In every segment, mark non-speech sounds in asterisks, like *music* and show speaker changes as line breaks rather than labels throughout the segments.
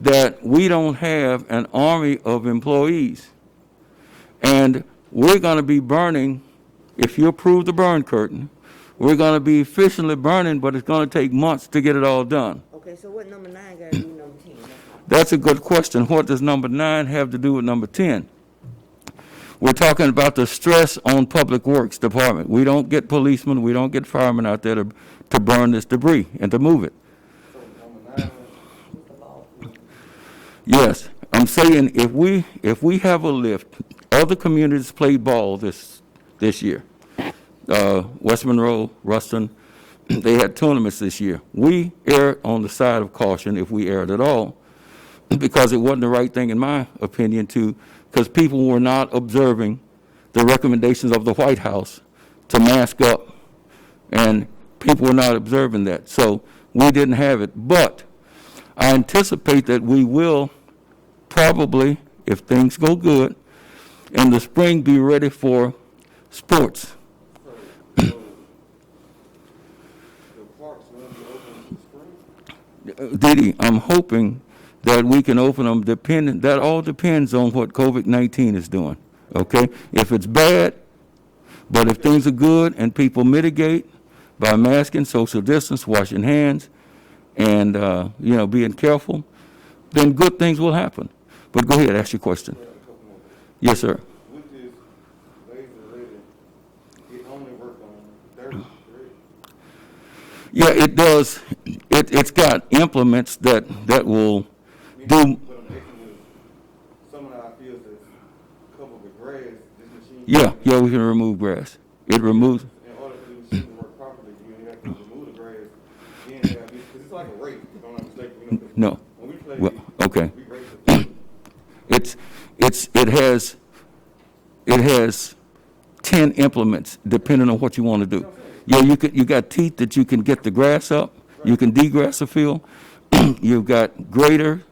that we don't have an army of employees. And we're going to be burning, if you approve the burn curtain, we're going to be efficiently burning, but it's going to take months to get it all done.
Okay, so what number nine got to do with number ten?
That's a good question. What does number nine have to do with number 10? We're talking about the stress on Public Works Department. We don't get policemen, we don't get firemen out there to, to burn this debris and to move it. Yes, I'm saying if we, if we have a lift, other communities played ball this, this year. Uh, West Monroe, Ruston, *clears throat* they had tournaments this year. We erred on the side of caution if we erred at all *laughs* because it wasn't the right thing, in my opinion, to, because people were not observing the recommendations of the White House to mask up, and people were not observing that. So we didn't have it. But I anticipate that we will probably, if things go good, in the spring be ready for sports.
The parks will be open in spring.
Diddy, I'm hoping that we can open them dependent, that all depends on what COVID-19 is doing, okay? If it's bad, but if things are good and people mitigate by masking, social distance, washing hands, and, uh, you know, being careful, then good things will happen. But go ahead, ask your question.
A couple more.
Yes, sir.
We just lazy lady. It only work on Thursday. Friday.
Yeah, it does, it, it's got implements that, that will
We
do,
need to put a making of Some of our fields that's covered with grass, this machine.
yeah, yeah, we can remove grass. It removes,
In order for the machine to work properly, you have to remove the grass. Then you gotta be, cause it's like a race, if I'm not mistaken. you know, 'cause
no,
When we play,
well, okay.
we race the field.
It's, it's, it has, it has ten implements, depending on what you want to do. Yeah, you could, you got teeth that you can get the grass up, you can degrass the field, *clears throat* you've got grader,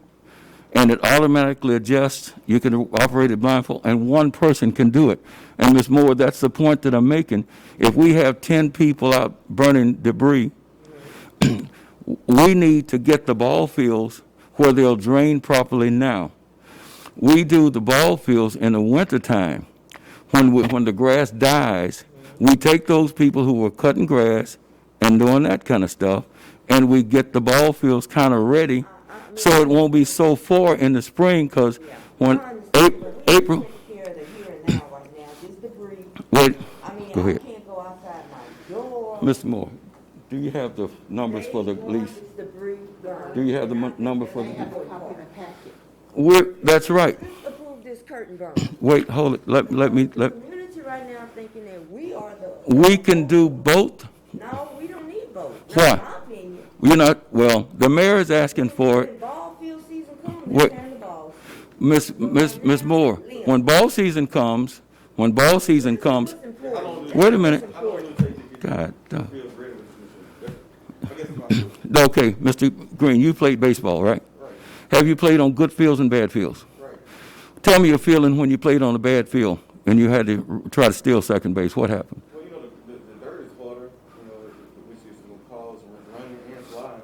and it automatically adjusts, you can operate it blindfold, and one person can do it. And Ms. Moore, that's the point that I'm making. If we have ten people out burning debris, we need to get the ball fields where they'll drain properly now we do the ball fields in the wintertime when, we- when the grass dies. We take those people who were cutting grass and doing that kind of stuff, and we get the ball fields kind of ready so it won't be so far in the spring because when April, April
Take care of the here and now right now, this debris,
wait,
I mean,
Go
I
ahead.
can't go outside my door.
Mr. Moore, do you have the numbers for the lease?
This debris gone.
Do you have the mon- number for the?
Copy the packet.
We're, that's right.
Just approve this curtain burn.
Wait, hold it. Let, let me,
The
let,
community right now thinking that we are the.
Uh, we can do both.
No, we don't need both.
Why?
Not my opinion.
You're not, well, the mayor is asking for it.
When ball field season comes,
What-
they turn the balls.
Miss, Miss, Miss Moore, when ball season comes, when ball season comes,
It's important.
wait a minute,
I don't really take the kids
God, uh,
to field ready with this machine. That's- I guess it's my, right,
okay, Mr. Green, you played baseball, right? Have you played on good fields and bad fields?
right.
Tell me your feeling when you played on a bad field and you had to r- try to steal second base, what happened?
Well, you know, the, the, the dirt is water, you know, which is gonna cause running and flying.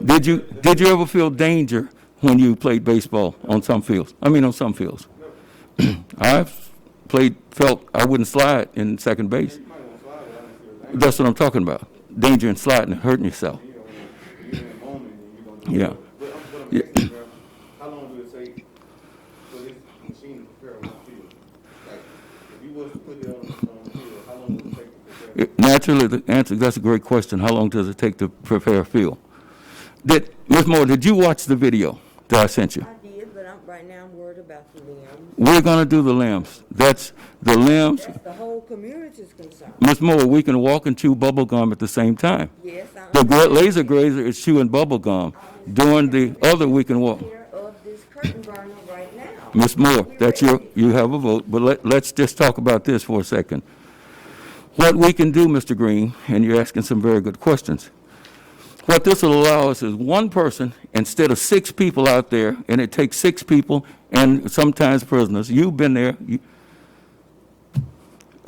But
Did you,
the- the-
did you ever feel danger when you played baseball on some fields? I mean, on some fields? *clears throat* I've played, felt I wouldn't slide in second base.
You might wanna fly down and see what's happening.
That's what I'm talking about, danger and sliding and hurting yourself.
You know, you're in the moment and you're gonna. do
Yeah.
it. But I'm, but
Yeah.
I'm asking, bro, how long would it take for this machine to prepare on the field? Like, if you was to put it on, on the field, how long would it take to prepare?
It- Naturally, the answer, that's a great question. How long does it take to prepare a field? Did, Ms. Moore, did you watch the video that I sent you?
I did, but I'm, right now I'm worried about the limbs.
We're gonna do the limbs. That's the limbs.
That's the whole community's concern.
Ms. Moore, we can walk and chew bubble gum at the same time.
Yes, I
The
am
gra- laser grazer is chewing bubble gum. During the other, we can walk.
aware of this curtain burner right now.
Ms. Moore, that's your, you have a vote, but let, let's just talk about this for a second. What we can do, Mr. Green, and you're asking some very good questions. What this will allow us is one person instead of six people out there, and it takes six people and sometimes prisoners. You've been there. You-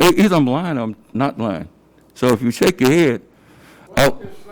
E- Either I'm lying or I'm not lying. So if you shake your head, I,
Just uh,